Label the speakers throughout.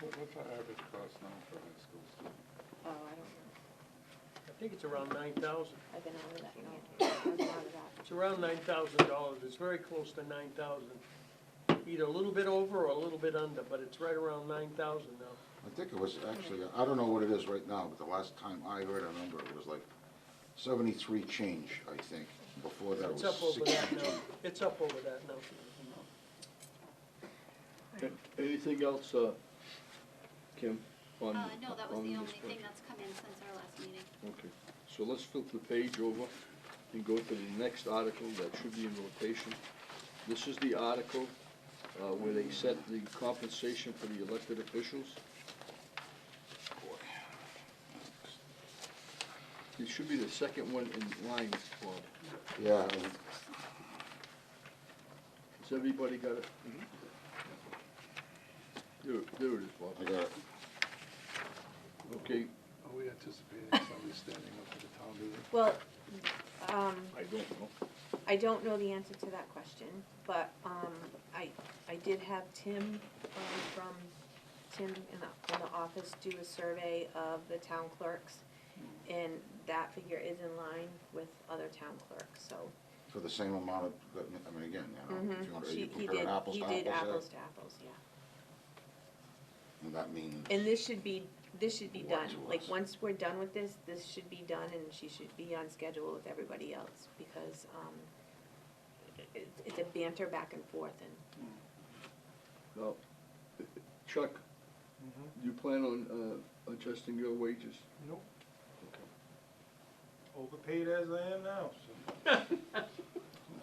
Speaker 1: What's our average cost now for a high school student?
Speaker 2: Oh, I don't know.
Speaker 3: I think it's around nine thousand.
Speaker 2: I've been out of that, no, I've been out of that.
Speaker 3: It's around nine thousand dollars. It's very close to nine thousand. Either a little bit over or a little bit under, but it's right around nine thousand now.
Speaker 4: I think it was actually, I don't know what it is right now, but the last time I heard a number, it was like seventy-three change, I think. Before that
Speaker 3: It's
Speaker 4: was
Speaker 3: up over that
Speaker 4: sixty-two.
Speaker 3: now. It's up over that now.
Speaker 5: Anything else, uh, Kim? on-
Speaker 6: Uh, no, that was
Speaker 5: on
Speaker 6: the
Speaker 5: this
Speaker 6: only thing
Speaker 5: budget?
Speaker 6: that's come in since our last meeting.
Speaker 5: Okay, so let's flip the page over and go to the next article that should be in rotation. This is the article, uh, where they set the compensation for the elected officials. It should be the second one in line, Bob.
Speaker 4: Yeah, and
Speaker 5: Has everybody got it? There, there it is,
Speaker 4: I
Speaker 5: Bob.
Speaker 4: got it.
Speaker 5: Okay,
Speaker 1: Are we anticipating somebody standing up at the town meeting?
Speaker 2: Well, um,
Speaker 5: I don't know.
Speaker 2: I don't know the answer to that question, but, um, I, I did have Tim, um, from, Tim in the, in the office do a survey of the town clerks, and that figure is in line with other town clerks, so. um,
Speaker 4: For the same amount of, I mean, again, you know, if you want to,
Speaker 2: Mm-hmm. She-
Speaker 4: you
Speaker 2: he
Speaker 4: compare
Speaker 2: did-
Speaker 4: apples to
Speaker 2: He did apples
Speaker 4: apples,
Speaker 2: to apples, yeah.
Speaker 4: there, and that means.
Speaker 2: And this should be, this should be done,
Speaker 4: What to
Speaker 2: like,
Speaker 4: us?
Speaker 2: once we're done with this, this should be done, and she should be on schedule with everybody else, because, um, it, it's a banter back and forth, and
Speaker 5: Now, Chuck,
Speaker 7: Mm-hmm.
Speaker 5: you plan on uh, adjusting your wages?
Speaker 7: Nope. Overpaid as I am now, so.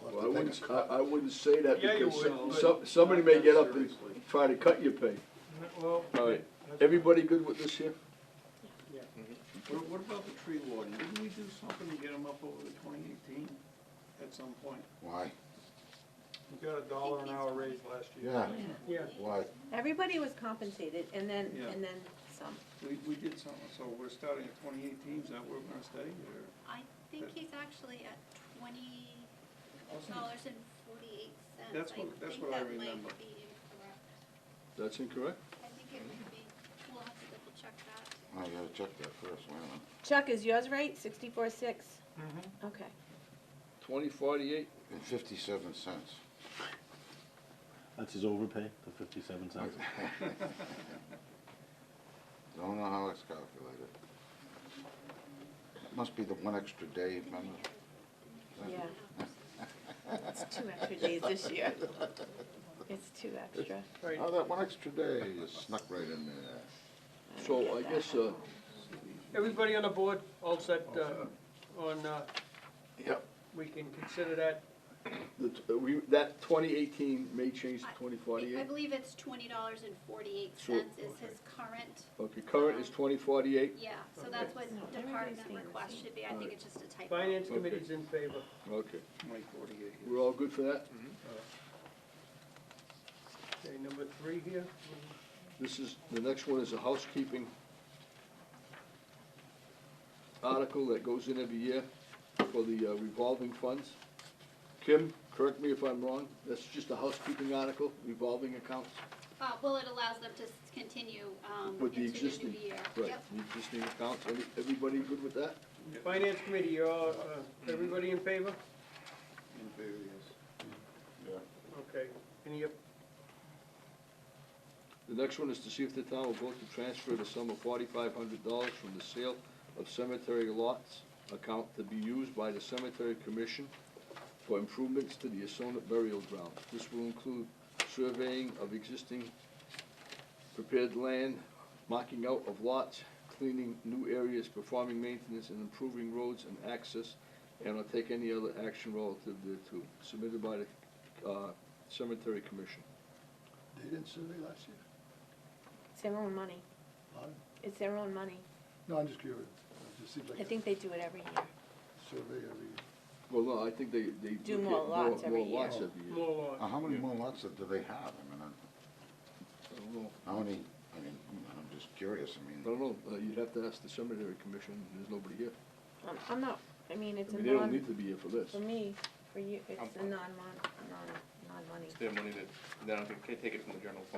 Speaker 5: Well, I wouldn't, I I wouldn't say that
Speaker 7: Yeah, you
Speaker 5: because
Speaker 7: would, but-
Speaker 5: some- somebody may get up and
Speaker 7: Seriously.
Speaker 5: try to cut your pay.
Speaker 7: Well,
Speaker 5: All right,
Speaker 7: that's-
Speaker 5: everybody good with this here?
Speaker 8: What, what about the tree warden? Didn't we do something to get him up over the twenty eighteen at some point?
Speaker 4: Why?
Speaker 7: we got a dollar an hour raise last year.
Speaker 4: Yeah,
Speaker 3: Yeah.
Speaker 4: why?
Speaker 2: everybody was compensated, and then,
Speaker 8: Yeah.
Speaker 2: and then some.
Speaker 8: We, we did something, so we're starting at twenty eighteen, is that where we're gonna stay, or?
Speaker 6: I think he's actually at twenty dollars and forty-eight cents.
Speaker 8: That's what- that's what I remember.
Speaker 6: think that might be incorrect.
Speaker 5: That's incorrect.
Speaker 6: I think it might be, we'll have to double check that.
Speaker 4: I gotta check that first, wait a minute.
Speaker 2: Chuck, is yours right, sixty-four, six?
Speaker 7: Mhm.
Speaker 2: Okay.
Speaker 5: Twenty forty-eight,
Speaker 4: And fifty-seven cents.
Speaker 9: That's his overpay, the fifty-seven cents.
Speaker 4: Don't know how it's calculated. It Must be the one extra day, remember?
Speaker 2: Yeah. It's two extra days this year. It's two extra.
Speaker 3: Right.
Speaker 4: Oh, that one extra day you snuck right in there.
Speaker 2: I don't
Speaker 5: So
Speaker 2: get
Speaker 5: I
Speaker 2: that
Speaker 5: guess,
Speaker 2: at
Speaker 5: uh,
Speaker 2: all.
Speaker 3: Everybody on the board, all set, uh, on, uh,
Speaker 5: Yep.
Speaker 3: we can consider that
Speaker 5: the t- uh, we, that twenty eighteen may change to
Speaker 6: I-
Speaker 5: twenty
Speaker 6: I
Speaker 5: forty-eight.
Speaker 6: believe it's twenty dollars and forty-eight
Speaker 5: Sure.
Speaker 6: cents is his current,
Speaker 5: Okay, current is twenty forty-eight,
Speaker 6: yeah, so that's what
Speaker 2: No, everybody's
Speaker 6: department
Speaker 2: staying the
Speaker 6: request should be, I think it's just a typo.
Speaker 3: Finance
Speaker 5: Okay.
Speaker 3: committee's in favor.
Speaker 5: okay.
Speaker 8: Twenty forty-eight.
Speaker 5: We're all good for that?
Speaker 3: Okay, number three here.
Speaker 5: This is, the next one is a housekeeping article that goes in every year for the uh, revolving funds. Kim, correct me if I'm wrong, that's just a housekeeping article, revolving accounts
Speaker 6: Uh, well, it allows them to s- continue, um,
Speaker 5: with
Speaker 6: into
Speaker 5: the
Speaker 6: the new year.
Speaker 5: existing. Right,
Speaker 6: Yep.
Speaker 5: the existing accounts, Every- everybody good with that?
Speaker 3: Finance committee, you're all, uh, everybody in favor?
Speaker 8: In various.
Speaker 3: Okay, any, op-
Speaker 5: The next one is to see if the town will vote to transfer the sum of forty-five hundred dollars from the sale of cemetery lots account to be used by the cemetery commission for improvements to the Asona burial ground. This will include surveying of existing prepared land, marking out of lots, cleaning new areas, performing maintenance, and improving roads and access, and will take any other action relative thereto, submitted by the, uh, cemetery commission.
Speaker 8: They didn't survey last year?
Speaker 2: It's their own money.
Speaker 8: Pardon?
Speaker 2: It's their own money.
Speaker 8: No, I'm just curious, it just seems
Speaker 2: I think they do it every year.
Speaker 8: survey every.
Speaker 5: Well, no, I think they, they.
Speaker 2: Do
Speaker 5: look
Speaker 2: more
Speaker 5: at
Speaker 2: lots every
Speaker 5: More lots
Speaker 2: year.
Speaker 5: every year.
Speaker 3: more law?
Speaker 4: Now, how many more lots do they have? I mean, I-
Speaker 5: I don't know,
Speaker 4: how many, I mean, I'm just curious, I mean.
Speaker 5: I don't know, uh, you'd have to ask the cemetery commission, there's nobody here.
Speaker 2: I'm, Um, I'm not, I mean, it's a
Speaker 5: I mean, they don't
Speaker 2: non,
Speaker 5: need to be here for this.
Speaker 2: for me, for you, it's a
Speaker 10: I'm-
Speaker 2: non-mon, non, non-money.
Speaker 10: It's their money that, that I don't think, can't take it from the general fund.